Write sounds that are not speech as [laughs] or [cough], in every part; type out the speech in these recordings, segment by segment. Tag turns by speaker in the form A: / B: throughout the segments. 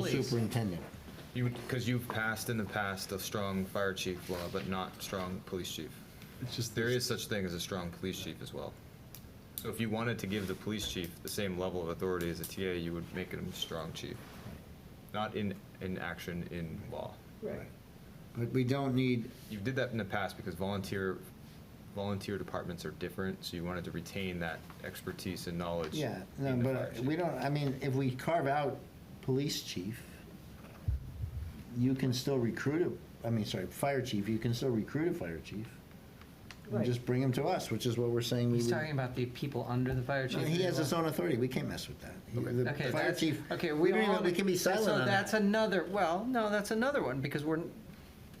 A: Please.
B: superintendent.
C: You, because you've passed in the past a strong fire chief law, but not strong police chief.
D: It's just
C: There is such thing as a strong police chief as well. So if you wanted to give the police chief the same level of authority as a TA, you would make him a strong chief. Not in, in action in law.
A: Right.
B: But we don't need,
C: You did that in the past because volunteer, volunteer departments are different, so you wanted to retain that expertise and knowledge.
B: yeah, no,
C: in the fire
B: but
C: chief.
B: we don't, I mean, if we carve out police chief, you can still recruit a, I mean, sorry, fire chief, you can still recruit a fire chief. And
A: Right.
B: just bring him to us, which is what we're saying we
E: He's
B: would.
E: talking about the people under the fire chief.
B: No, He has his own authority, we can't mess with that. He- The
E: Okay,
B: fire
E: that's-
B: chief,
E: Okay,
B: we
E: we
B: don't
E: all.
B: even, we can be silent
E: So
B: on
E: that's
B: that.
E: another, well, no, that's another one, because we're,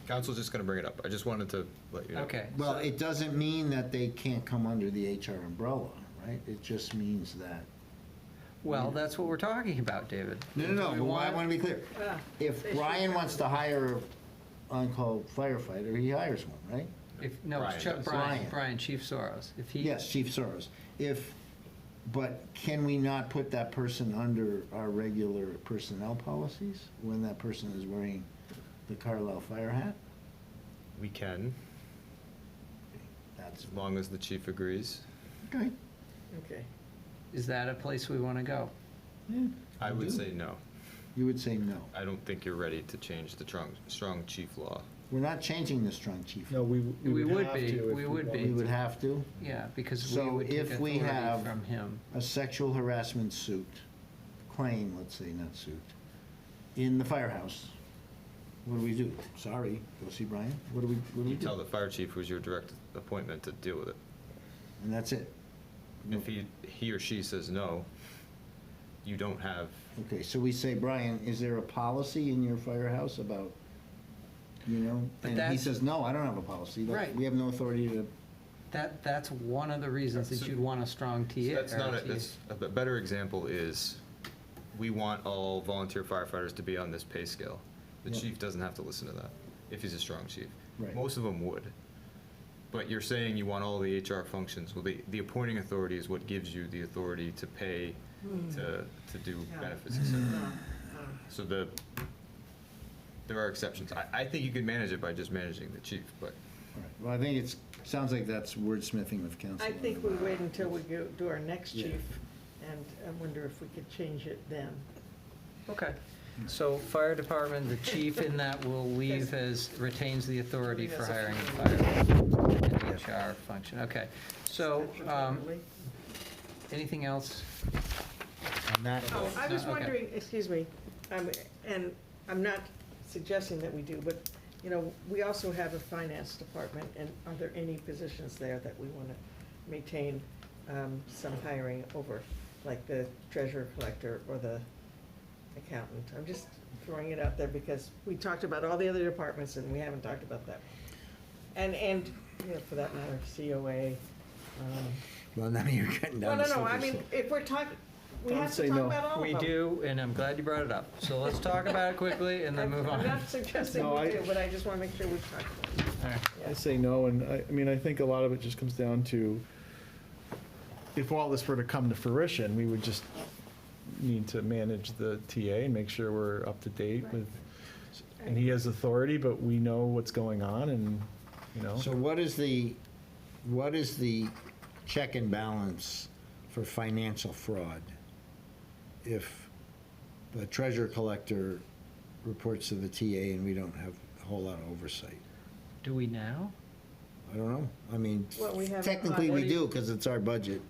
C: Council's just gonna bring it up. I just wanted to let you know.
E: okay.
B: Well, it doesn't mean that they can't come under the HR umbrella, right? It just means that.
E: Well, that's what we're talking about, David.
B: No, no,
E: We
B: no, I
E: want-
B: want to be clear.
A: Yeah.
B: If
A: They should
B: Brian
A: have
B: wants to hire an on-call firefighter, he hires one, right?
E: If, no, it's
C: Brian
E: Chuck,
C: does.
E: Brian,
B: Brian.
E: Brian, Chief Soros. If he.
B: Yes, chief service. If, but can we not put that person under our regular personnel policies when that person is wearing the Carlisle fire hat?
C: We can,
B: That's,
C: as long as the chief agrees.
B: okay,
A: Okay.
E: Is that a place we want to go?
B: yeah.
C: I would
B: do.
C: say no.
B: You would say no.
C: I don't think you're ready to change the strong, strong chief law.
B: We're not changing the strong chief.
D: No, we,
E: We
D: we would
E: would
D: have
E: be,
D: to if
E: we would be.
B: We
D: wanted
B: would have to.
E: Yeah, because we
B: So
E: would take
B: if we
E: authority
B: have-
E: from him.
B: a sexual harassment suit, claim, let's say, not suit, in the firehouse, what do we do? Sorry, go see Brian? What do we, what do we
C: You tell
B: do?
C: the fire chief who's your direct appointment to deal with it.
B: And that's it?
C: If he, he or she says no, you don't have,
B: Okay, so we say, Brian, is there a policy in your firehouse about, you know?
E: But
B: And he
E: that's-
B: says, no, I don't have a policy. Like,
E: Right.
B: We have no authority to,
E: That, that's one of the reasons that
C: So-
E: you'd want a strong TA.
C: so that's
E: or
C: not,
E: a
C: it.
E: TA.
C: that's, a b- better example is, we want all volunteer firefighters to be on this pay scale. The
B: Yeah.
C: chief doesn't have to listen to that, if he's a strong chief.
B: Right.
C: Most of them would. But you're saying you want all the HR functions, well, the, the appointing authority is what gives you the authority to pay, to, to do
A: Yeah.
C: benefits, et cetera.
A: Uh, uh,
C: So the, there are exceptions. I, I think you can manage it by just managing the chief, but
B: all right. well, I think it's, sounds like that's wordsmithing with council.
A: I think we wait until we go, do our next
B: Yeah.
A: chief, and I wonder if we could change it then.
E: Okay, so fire department, the chief in that
C: [laughs]
E: will leave as, retains the authority for hiring a fire and HR function, okay. So, um, anything else?
B: On that
A: Oh, I
E: No,
A: was
E: okay.
A: wondering, excuse me, um, and I'm not suggesting that we do, but, you know, we also have a finance department, and are there any positions there that we want to maintain um, some hiring over, like the treasurer collector or the accountant? I'm just throwing it out there because we talked about all the other departments and we haven't talked about that. And, and, you know, for that matter, COA, um,
B: Well, now you're getting
A: no,
B: down
A: no,
B: to
A: no, I
B: slippery
A: mean,
B: slope.
A: if we're talking, we
D: Don't
A: have
D: say
A: to talk
D: no.
A: about all of
E: We
A: them.
E: do, and I'm glad you brought it up, so let's talk about it quickly and then
A: I'm-
E: move on.
A: I'm [laughs] not suggesting
D: No,
A: we
D: I-
A: do, but I just want to make sure we talk about it.
E: All right.
D: to. I
A: Yeah.
D: say no, and I, I mean, I think a lot of it just comes down to, if all this were to come to fruition, we would just need to manage the TA and make sure we're up to date
A: Right.
D: with, and he has authority, but we know what's going on and, you know.
B: So what is the, what is the check and balance for financial fraud? If the treasure collector reports to the TA and we don't have a whole lot of oversight?
E: Do we now?
B: I don't know. I mean,
A: Well, we have-
B: technically
E: What
B: we
E: do you-
B: do because it's our budget.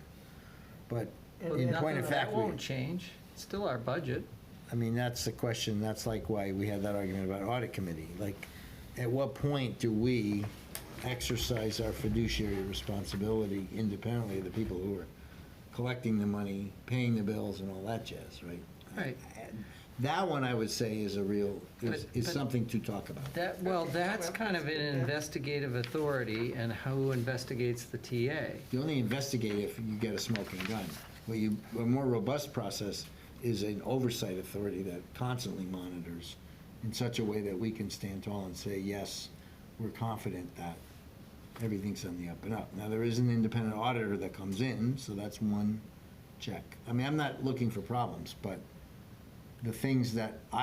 B: But
A: And
B: in
A: then-
B: point of fact,
E: That
B: we,
E: won't change, it's still our budget.
B: I mean, that's the question. That's like why we had that argument about audit committee. Like, at what point do we exercise our fiduciary responsibility independently of the people who are collecting the money, paying the bills and all that jazz, right?
E: Right,
B: That one I would say is a real, is,
E: But-
B: is
E: but-
B: something to talk about.
E: that, well,
A: Okay,
E: that's
A: well,
E: kind of an
A: yeah.
E: investigative authority and who investigates the TA.
B: You only investigate if you get a smoking gun. What you, a more robust process is an oversight authority that constantly monitors in such a way that we can stand tall and say, yes, we're confident that everything's on the up and up. Now, there is an independent auditor that comes in, so that's one check. I mean, I'm not looking for problems, but the things that I.